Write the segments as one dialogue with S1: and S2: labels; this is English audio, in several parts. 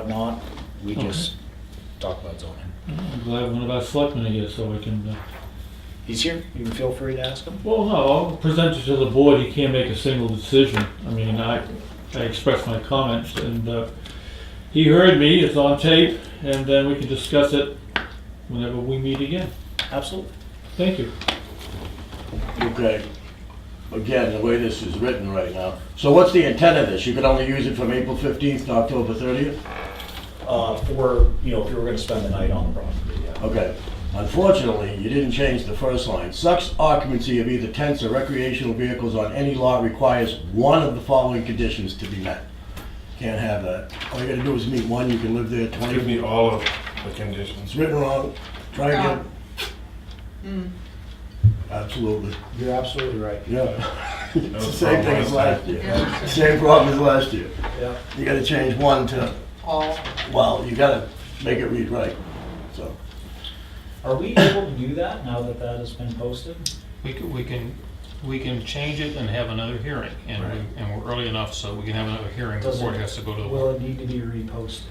S1: whatnot. We
S2: Okay.
S1: just talk about zoning.
S2: I'm glad one of our selectmen are here so I can, uh,
S1: He's here. You can feel free to ask him.
S2: well, no, I'll present it to the board, he can't make a single decision. I mean, I, I expressed my comments and, uh, he heard me, it's on tape, and then we can discuss it whenever we meet again.
S1: Absolutely.
S2: Thank you.
S3: Okay. Again, the way this is written right now. So what's the intent of this? You can only use it from April 15th to October 30th?
S1: Uh, for, you know, if you were gonna spend the night on the property, yeah.
S3: Okay. Unfortunately, you didn't change the first line. Such occupancy of either tents or recreational vehicles on any lot requires one of the following conditions to be met. Can't have that. All you gotta do is meet one, you can live there 20...
S4: Give me all of the conditions.
S3: It's written wrong. Try again. Mm. Absolutely.
S1: You're absolutely right.
S3: Yeah. It's the
S4: was
S3: same thing
S4: wrong
S3: as
S4: last
S3: last
S4: time.
S3: year. Same problem as last year.
S1: Yeah.
S3: You gotta change one to,
S5: all.
S3: well, you gotta make it read right, so.
S1: Are we able to do that now that that has been posted?
S6: We can, we can, we can change it and have another hearing, and
S1: Right.
S6: we, and we're early enough, so we can have another hearing
S1: Does
S6: before
S1: it-
S6: it has to go to the
S1: Will it
S6: board.
S1: need to be reposted?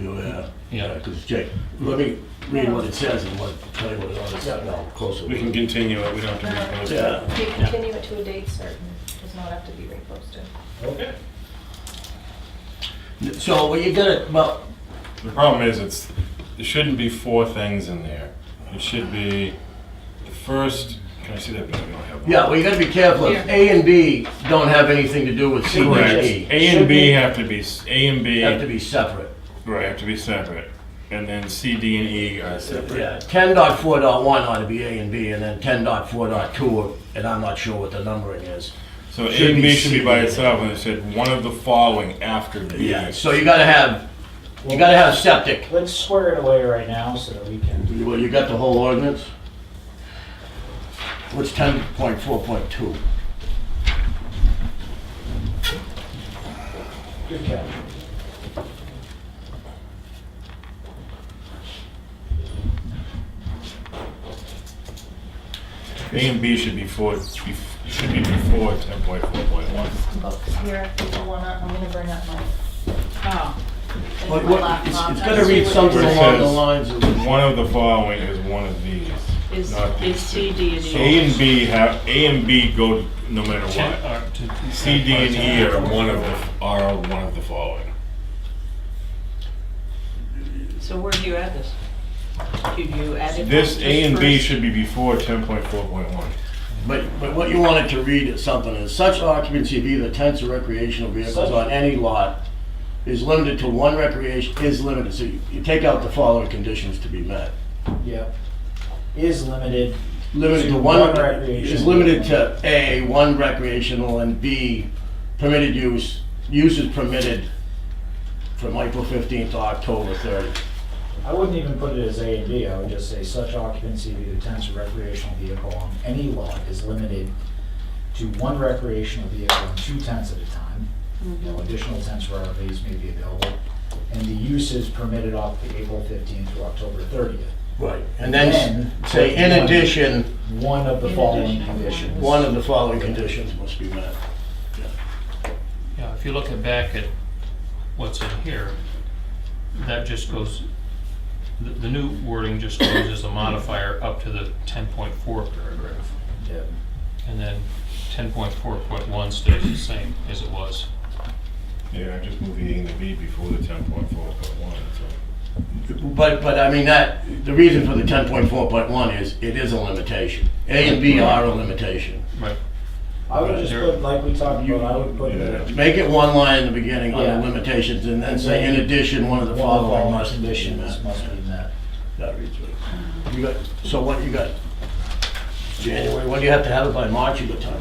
S3: Yeah,
S6: Yeah.
S3: yeah, because Jake, let me read what it says and what, tell you what it ought to say now, closer.
S4: We can continue it, we don't have to repost
S3: Yeah,
S7: You continue it to a date certain, does not have to be reposted.
S1: Okay.
S3: so well, you gotta, well,
S4: it. The problem is, it's, there shouldn't be four things in there. It should be the first, can I see that? No, I don't have one.
S3: yeah, well, you gotta be careful. If A and B don't have anything to do with C and
S4: Correct.
S3: D.
S4: A and B have to be, s- A and B,
S3: Have to be separate.
S4: right, have to be separate. And then C, D, and E are separate.
S3: Yeah, ten dot four dot one ought to be A and B, and then ten dot four dot two, and I'm not sure what the numbering is.
S4: So A
S3: Should
S4: and
S3: be
S4: B should be by
S3: C.
S4: itself, and it said one of the following after B.
S3: Yeah, so you gotta have, you gotta have septic.
S1: Let's square it away right now so that we can,
S3: Well, you got the whole ordinance? What's ten point four point two?
S1: good catch.
S4: A and B should be four, be- should be before ten point four point one.
S7: Books here, if you wanna, I'm gonna bring up my.
S5: Oh,
S3: But what, it's, it's gonna read something
S4: Where it
S3: along the lines
S4: says-
S3: of,
S4: One of the following is one of these.
S5: is,
S4: not
S5: is
S4: these.
S5: C, D, and E.
S4: A and B have, A and B go no matter
S6: Ten-
S4: what.
S6: or to-
S4: C, D, and E
S6: or
S4: are
S6: ten.
S4: one of the, are one of the following.
S5: So where do you add this? Do you add it?
S4: This
S5: just
S4: A and B
S5: first?
S4: should be before ten point four point one.
S3: but, but what you wanted to read is something, is such occupancy of either tents or recreational vehicles on any lot is limited to one recreation, is limited, so you, you take out the following conditions to be met.
S1: Yep. Is limited.
S3: Limited to
S1: To
S3: one,
S1: one
S3: is
S1: recreational.
S3: limited to A, one recreational, and B, permitted use, use is permitted from April fifteenth to October thirtieth.
S1: I wouldn't even put it as A and B, I would just say such occupancy of either tents or recreational vehicle on any lot is limited to one recreational vehicle and two tents at a time.
S5: Mm-hmm.
S1: No additional tents or RVs may be available, and the use is permitted off the April fifteenth to October thirtieth.
S3: Right. And then
S1: Then-
S3: s- say, in addition,
S1: One of the
S5: In
S1: following
S5: addition,
S1: conditions.
S3: one of the following conditions must be met.
S6: Yeah, if you look at back at what's in here, that just goes, the, the new wording just goes as a modifier up to the ten point four paragraph.
S1: Yeah.
S6: And then ten point four point one stays the same as it was.
S4: Yeah, I just moved the A and the B before the ten point four point one, so.
S3: But, but I mean, that, the reason for the ten point four point one is, it is a limitation. A and B are a limitation.
S6: Right.
S1: I would just put, like we talked about, I would put
S4: Yeah.
S1: it.
S3: Make it one line in the beginning on
S1: Yeah.
S3: the limitations, and then say, in addition, one of the
S1: One of the
S3: following must be
S1: conditions
S3: met.
S1: must be met.
S3: That reads right. You got, so what, you got January, what do you have to have it by March, you got time?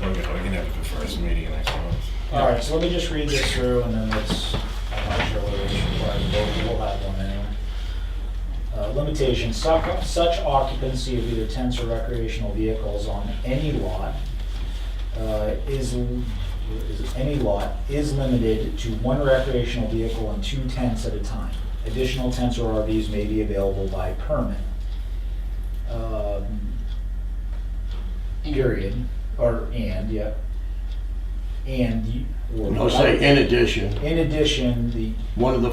S4: Okay, we can have the first meeting next month.
S1: All right, so let me just read this through and then let's, I'm not sure whether it's required, but we'll have one anyway. Uh, Limitations, such such occupancy of either tents or recreational vehicles on any lot uh, is, is it any lot is limited to one recreational vehicle and two tents at a time. Additional tents or RVs may be available by permit. Um, Period, or and, yeah. And, you-
S3: word.
S1: No, say in addition,
S3: In addition, the
S1: one of the